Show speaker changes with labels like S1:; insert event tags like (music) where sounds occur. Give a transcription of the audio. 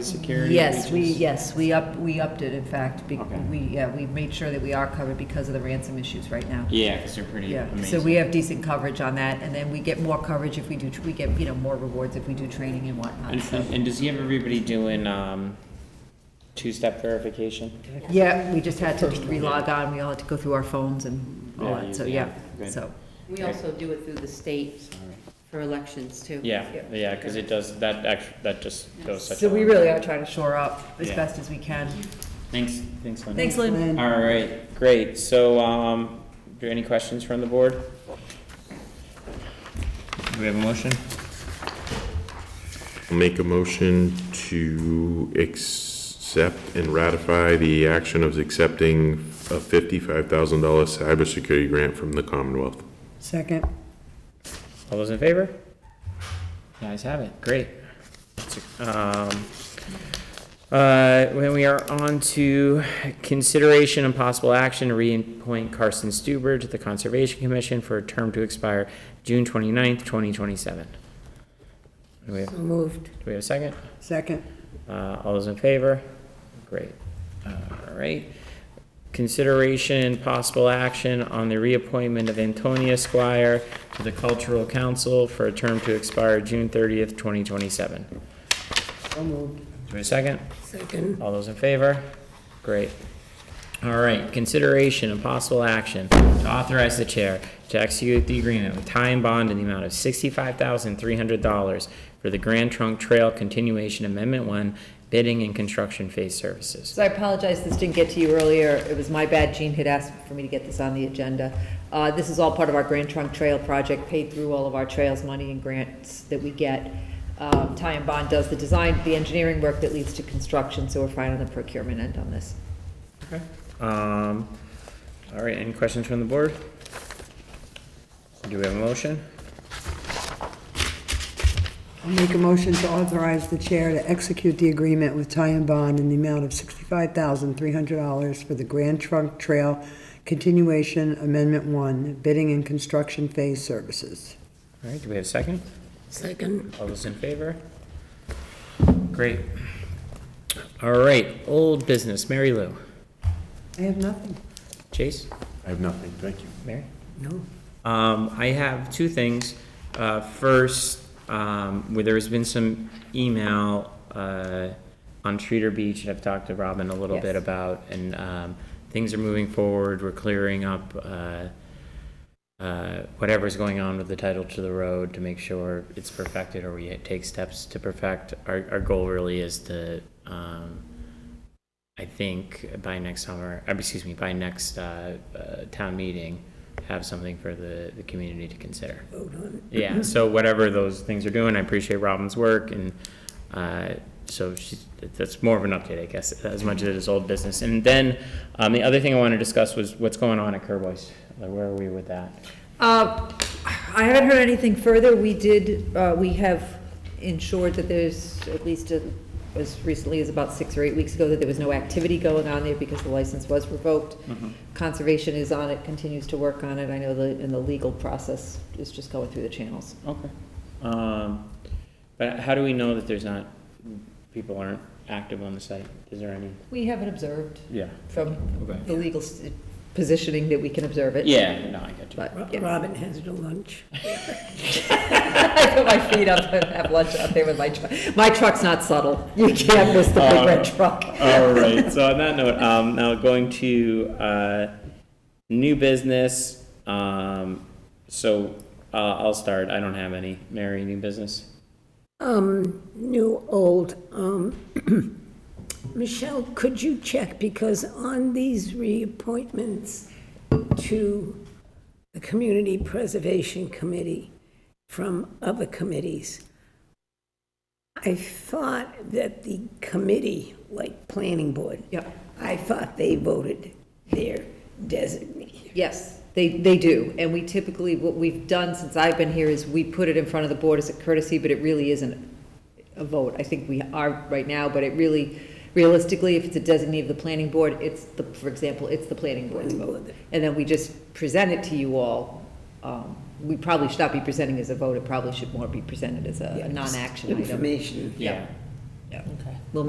S1: cybersecurity?
S2: Yes, we,
S1: breaches?
S2: yes, we up, we upped it, in fact, be-
S1: Okay.
S2: we, yeah, we made sure that we are covered because of the ransom issues right now.
S1: Yeah, because they're pretty
S2: Yeah,
S1: amazing.
S2: so we have decent coverage on that, and then we get more coverage if we do, tr- we get, you know, more rewards if we do training and whatnot,
S1: And,
S2: so.
S1: and, and does he have everybody doing um, two-step verification?
S2: Yeah, we just had to relog on, we all had to go through our phones and all
S1: Yeah,
S2: that, so,
S1: you-
S2: yeah,
S1: yeah, good.
S2: so.
S3: We also do it through the state for elections, too.
S1: Yeah, yeah, because it does that. Actually, that just goes such.
S2: So
S1: a
S2: we
S1: long
S2: really
S1: way.
S2: are trying to shore up as
S1: Yeah.
S2: best as we can.
S1: Thanks, thanks, Linda.
S2: Thanks, Lynn.
S1: All right, great. So, um, do any questions from the board? Do we have a motion?
S4: I'll Make a motion to accept and ratify the action of accepting a $55,000 cybersecurity grant from the Commonwealth.
S5: Second.
S1: All those in favor? The ayes have it, great. Um, uh, When we are on to consideration and possible action, to reappoint Carson Stuber to the Conservation Commission for a term to expire June 29th, 2027. Do we have, do
S5: Moved.
S1: we have a second?
S5: Second.
S1: Uh, All those in favor? Great. Uh, All right. Consideration and possible action on the reappointment of Antonia Squire to the Cultural Council for a term to expire June 30th, 2027. Do we have a second?
S5: Second.
S1: All those in favor? Great. All right, consideration and possible action to authorize the chair to execute the agreement with tie and bond in the amount of sixty-five thousand three hundred dollars for the Grand Trunk Trail Continuation Amendment One bidding and construction phase services.
S2: So I apologize, this didn't get to you earlier. It was my bad. Gene had asked for me to get this on the agenda. Uh, This is all part of our Grand Trunk Trail project, paid through all of our trails money and grants that we get. Um, Ty and Bond does the design, the engineering work that leads to construction, so we're fine on the procurement end on this.
S1: Um, all right, any questions from the board? Do we have a motion?
S5: I'll make a motion to authorize the chair to execute the agreement with Ty and Bond in the amount of $65,300 for the Grand Trunk Trail Continuation Amendment 1, bidding and construction phase services.
S1: All right, do we have a second?
S5: Second.
S1: All those in favor? Great. All right, old business, Mary Lou.
S5: I have nothing.
S1: Chase?
S4: I have nothing, thank you.
S1: Mary?
S5: No.
S1: Um, I have two things. Uh, first, um, where there's been some email, uh, on Streeter Beach, and I've talked to Robin a little bit
S2: Yes.
S1: about, and, um, things are moving forward, we're clearing up, uh, uh, whatever's going on with the title to the road to make sure it's perfected or we take steps to perfect. Our, our goal really is to, um, I think by next summer, uh, excuse me, by next uh, uh, town meeting, have something for the, the community to consider. Yeah, so whatever those things are doing, I appreciate Robin's work and uh, so she's, that's more of an update, I guess, as much as it is old business. And then um, the other thing I want to discuss was what's going on at Kerwise. Like, Where are we with that?
S2: Uh, I haven't heard anything further. We did, uh, we have ensured that there's, at least uh, as recently as about six or eight weeks ago, that there was no activity going on there because the license was revoked. Conservation is on it, continues to work on it. I know the, and the legal process is just going through the channels.
S1: Okay. Um, but how do we know that there's not, people aren't active on the site? Is there any?
S2: We haven't observed
S1: Yeah.
S2: from
S1: Okay.
S2: the legal s- positioning that we can observe it.
S1: Yeah, no, I get you.
S2: But, yeah. (laughs)
S6: Robin has to lunch.
S2: I put my feet up and have lunch out there with my truck. My truck's not subtle. You can't miss the big red truck.
S1: All right, so on that note, um, now going to, uh, new business, um, so, uh, I'll start, I don't have any, Mary, new business?
S6: Um, new, old, um, (clears throat) Michelle, could you check, because on these reappointments to the Community Preservation Committee from other committees, I thought that the committee, like Planning Board.
S2: Yep.
S6: I thought they voted their designee.
S2: Yes, they, they do, and we typically, what we've done since I've been here is we put it in front of the board as a courtesy, but it really isn't a vote. I think we are right now, but it really, realistically, if it's a designee of the planning board, it's the, for example, it's the planning board's vote. And then we just present it to you all. Um, We probably should not be presenting as a vote, it probably should more be presented as a a non-action item.
S6: Information.
S1: Yeah.